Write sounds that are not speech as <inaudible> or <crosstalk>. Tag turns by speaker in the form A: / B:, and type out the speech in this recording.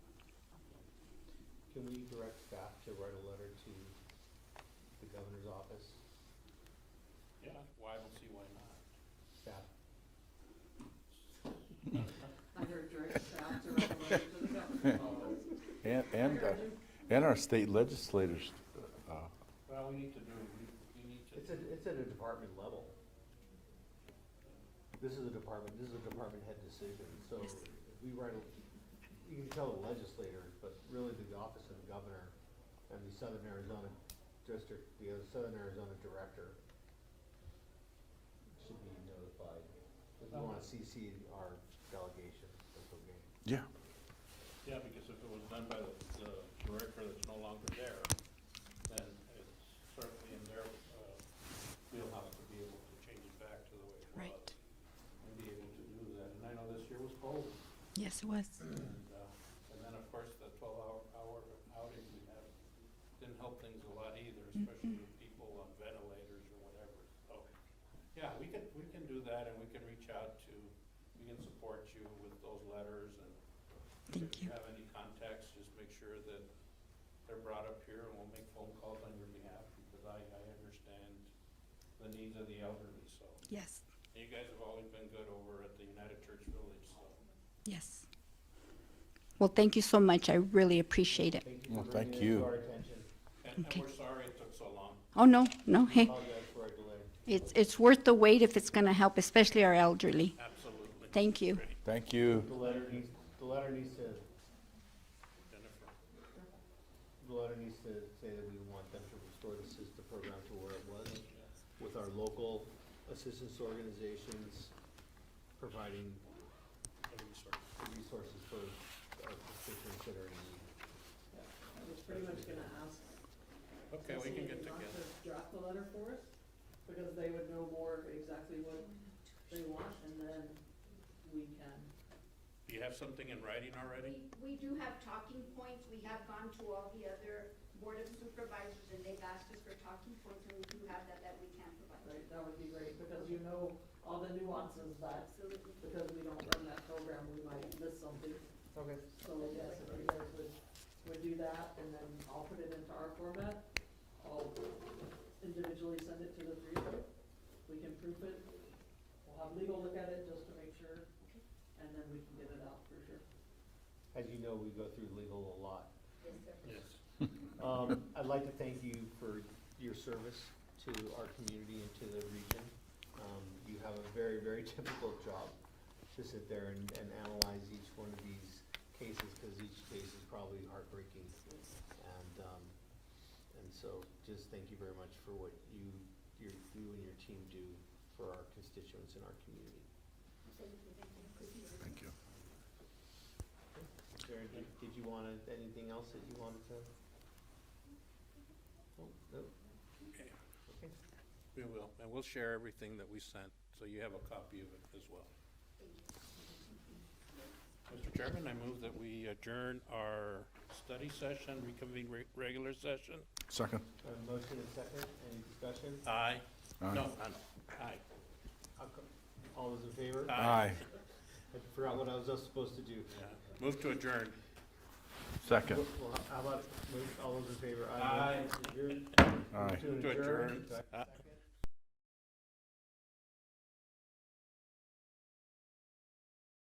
A: Can we direct staff to write a letter to the governor's office,
B: Yeah, well, I don't see why not.
A: staff?
C: I heard direct staff to write a letter to the governor's office.
D: And, and, uh, and our state legislators, uh,
B: Well, we need to do, we, we need to.
A: It's at, it's at a department level. This is a department, this is a department head decision, so if we write, a you can tell the legislators, but really the office of the governor and the Southern Arizona District, the other Southern Arizona Director should be notified. If you wanna CC our delegation, that's okay.
D: yeah,
B: Yeah, because if it was done by the, the director that's no longer there, then it's certainly in their, uh, wheelhouse to be able to change it back to the way it was.
E: Right.
B: And be able to do that, and I know this year was cold,
E: Yes, it was.
B: and, uh, and then, of course, the twelve hour, hour outing we had didn't help things a lot either, especially with people on ventilators or whatever, so. Yeah, we can, we can do that, and we can reach out to, we can support you with those letters and
E: Thank
B: if you
E: you.
B: have any contacts, just make sure that they're brought up here and we'll make phone calls on your behalf because I, I understand the needs of the elderly, so.
E: Yes,
B: And you guys have always been good over at the United Church Village, so.
E: yes. Well, thank you so much. I really appreciate it.
A: Thank you for
D: Well, thank
A: bringing it to
D: you.
A: our attention.
B: And, and
E: Okay.
B: we're sorry it took so long.
E: Oh, no, no, hey,
A: Apologize for our delay.
E: it's, it's worth the wait if it's going to help, especially our elderly.
B: Absolutely.
E: Thank you.
B: Great.
D: thank you.
A: The letter needs, the letter needs to,
B: Jennifer.
A: the letter needs to say that we want them to restore the SISTA program to where it was with our local assistance organizations providing
B: Any sort of-
A: the resources for our constituents that are in need.
C: I was pretty much gonna ask.
B: Okay, we can get
C: Cecily not
B: together.
C: to Draft the letter for us, because they would know more exactly what they want, and then we can.
B: Do you have something in writing already?
F: We, we do have talking points, we have gone to all the other board of supervisors and they've asked us for talking points and we do have that, that we can provide.
C: Right, that would be great, because you know all the nuances that,
F: Absolutely.
C: because we don't run that program, we might miss something.
A: Okay.
C: So yes, if you guys would, would do that, and then I'll put it into our format, I'll individually send it to the three of you. We can proof it, we'll have legal look at it just to make sure, and then we can get it out for sure.
A: As you know, we go through legal a lot.
F: Yes, sir.
B: Yes.
A: Um, I'd like to thank you for your service to our community and to the region. Um, you have a very, very <laughs> difficult job to sit there and, and analyze each one of these cases, cause each case is probably heartbreaking. And, um, and so just thank you very much for what you, your, you and your team do for our constituents and our community.
F: Thank you, thank you.
D: Thank you.
A: Karen, did, did you wanna, anything else that you wanted to? Oh, no,
B: Okay.
A: okay.
B: We will, and we'll share everything that we sent, so you have a copy of it as well. Mr. Chairman, I move that we adjourn our study session, reconvene re- regular session.
D: Second.
A: A motion and second, any discussion?
B: Aye.
D: Aye.
B: No, aye, aye.
A: I'll co- All those in favor? I
D: Aye.
A: forgot what I was just supposed to do.
B: Yeah. Move to adjourn.
D: Second.
A: Well, How about, move- all those in favor?
B: Aye.
A: Adjourn.
D: Aye.
A: To
B: To
A: adjourn.
B: adjourn.
A: Second.